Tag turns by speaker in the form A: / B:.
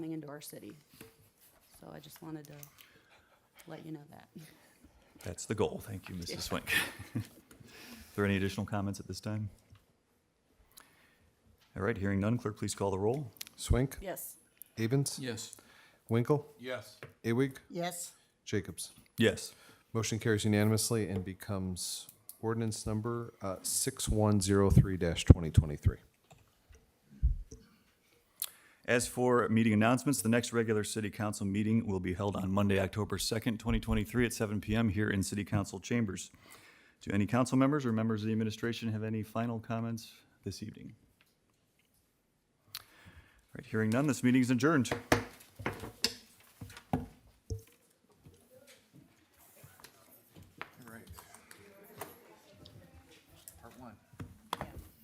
A: our city. So I just wanted to let you know that.
B: That's the goal. Thank you, Mrs. Swink. Are there any additional comments at this time? All right, hearing none, clerk, please call the roll.
C: Swink,
A: Yes.
C: Avens,
D: Yes.
C: Winkle,
D: Yes.
C: Awig,
E: yes,
C: Jacobs.
B: Yes.
C: Motion carries unanimously and becomes ordinance number uh, 6103-2023.
B: As for meeting announcements, the next regular city council meeting will be held on Monday, October 2nd, 2023 at 7 PM here in city council chambers. Do any council members or members of the administration have any final comments this evening? All right, hearing none, this meeting is adjourned.